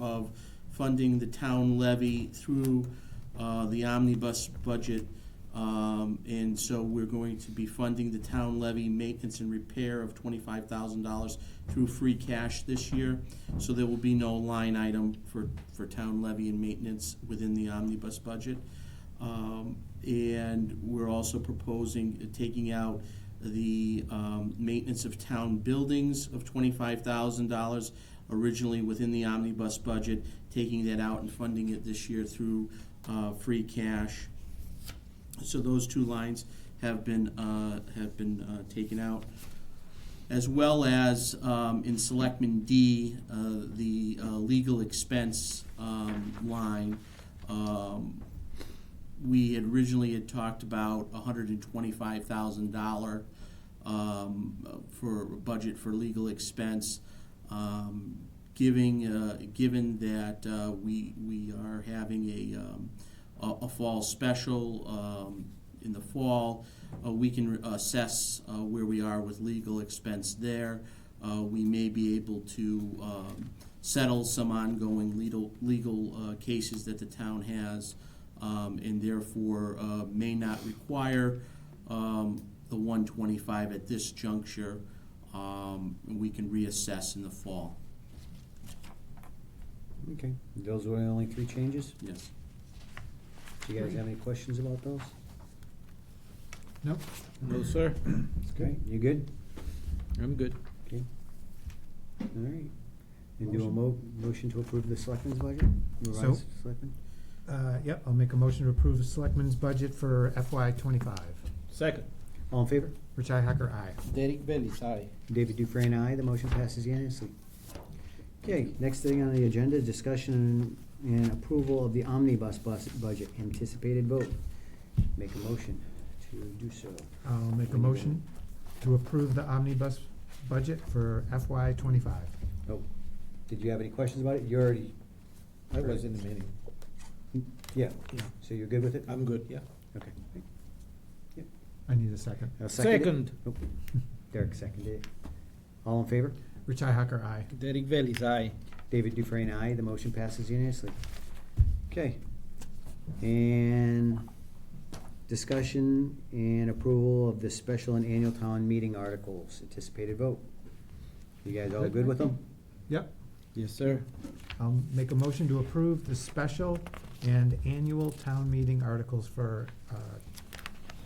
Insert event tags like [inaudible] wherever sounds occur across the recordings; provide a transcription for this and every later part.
of funding the town levy through uh, the omnibus budget. Um, And so we're going to be funding the town levy maintenance and repair of twenty-five thousand dollars through free cash this year. So there will be no line item for, for town levy and maintenance within the omnibus budget. Um, And we're also proposing uh, taking out the um, maintenance of town buildings of twenty-five thousand dollars originally within the omnibus budget, taking that out and funding it this year through uh, free cash. So those two lines have been, uh, have been uh, taken out as well as um, in Selectman D, uh, the uh, legal expense um, line. Um, We had originally had talked about $125,000 um, for a budget for legal expense. Um, Giving, uh, given that uh, we, we are having a, um, a a fall special um, in the fall. Uh, we can assess uh, where we are with legal expense there. Uh, we may be able to um, settle some ongoing legal, legal uh, cases that the town has, um, and therefore uh, may not require um, the 125 at this juncture. Um, and we can reassess in the fall. Okay, those were the only three changes. Yes. Do you guys have any questions about those? Nope, No, sir. Okay, you good? I'm good. Okay. All right. And do a mo- motion to approve the selectmen's budget? Revised selectmen? Uh, yep, I'll make a motion to approve the selectmen's budget for FY twenty-five. Second. All in favor? Richi Hacker, aye. Derek Bellis, aye. David Dufresne, aye. The motion passes unanimously. Okay, next thing on the agenda, discussion and approval of the omnibus bus budget, anticipated vote. Make a motion to do so. I'll make a motion to approve the omnibus budget for FY twenty-five. Oh, did you have any questions about it? You already, I was in the meeting. yeah, Yeah. so you're good with it? I'm good, yeah. Okay. I need a second. I'll second it. Second. Nope. Derek seconded it. All in favor? Richi Hacker, aye. Derek Bellis, aye. David Dufresne, aye. The motion passes unanimously. Okay. And discussion and approval of the special and annual town meeting articles, anticipated vote. You guys all good with them? Yep, Yes, sir. I'll make a motion to approve the special and annual town meeting articles for, uh,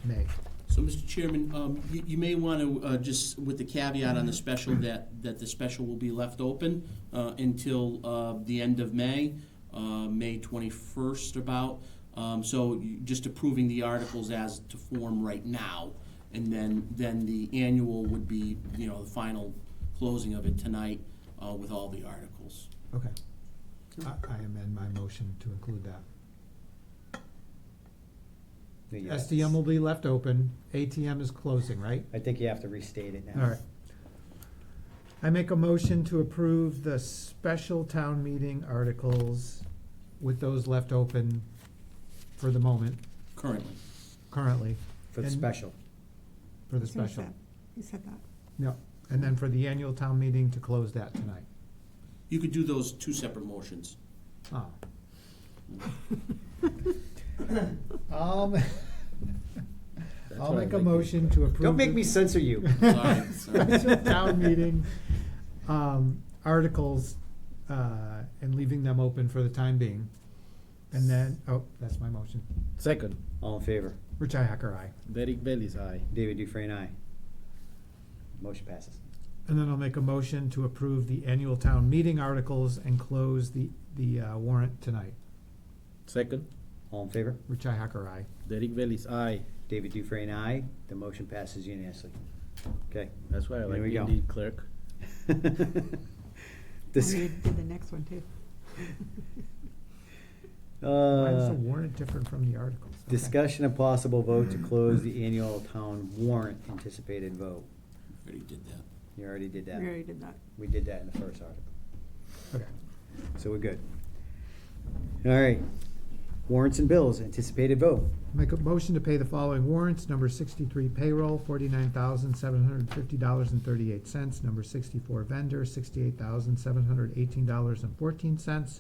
May. So, Mr. Chairman, um, you, you may want to, uh, just with the caveat on the special, that, that the special will be left open, uh, until, uh, the end of May, uh, May twenty-first about. Um, so you- just approving the articles as to form right now, and then, then the annual would be, you know, the final closing of it tonight, uh, with all the articles. Okay. I, I amend my motion to include that. Yes. SDM will be left open, ATM is closing, right? I think you have to restate it now. All right. I make a motion to approve the special town meeting articles with those left open for the moment, Currently, currently, For the And- special. for the Who said special. that? Who said that? No, and then for the annual town meeting to close that tonight. you could do those two separate motions. [laughs] Oh. Um, I'll make a motion to approve. Don't make the- me censor [laughs] you. Sorry, sorry. town meeting um, articles uh, and leaving them open for the time being. And then, oh, that's my motion. Second. All in favor? Richi Hacker, aye. Derek Bellis, aye. David Dufresne, aye. Motion passes. And then I'll make a motion to approve the annual town meeting articles and close the, the uh, warrant tonight. Second. All in favor? Richi Hacker, aye. Derek Bellis, aye. David Dufresne, aye. The motion passes unanimously. Okay. [laughs] That's why I There like we go. Indeed clerk. This, I Oh, did the next one too. Why is the uh, warrant different from the articles? Okay. discussion and possible vote [clears throat] to close the annual town warrant anticipated vote. Already did that. You already did We that. already did that. We did that in the first article, Okay. so we're good. All right. Warrants and bills, anticipated vote. Make a motion to pay the following warrants, number sixty-three payroll, forty-nine thousand, seven hundred and fifty dollars and thirty-eight cents, number sixty-four vendor, sixty-eight thousand, seven hundred eighteen dollars and fourteen cents,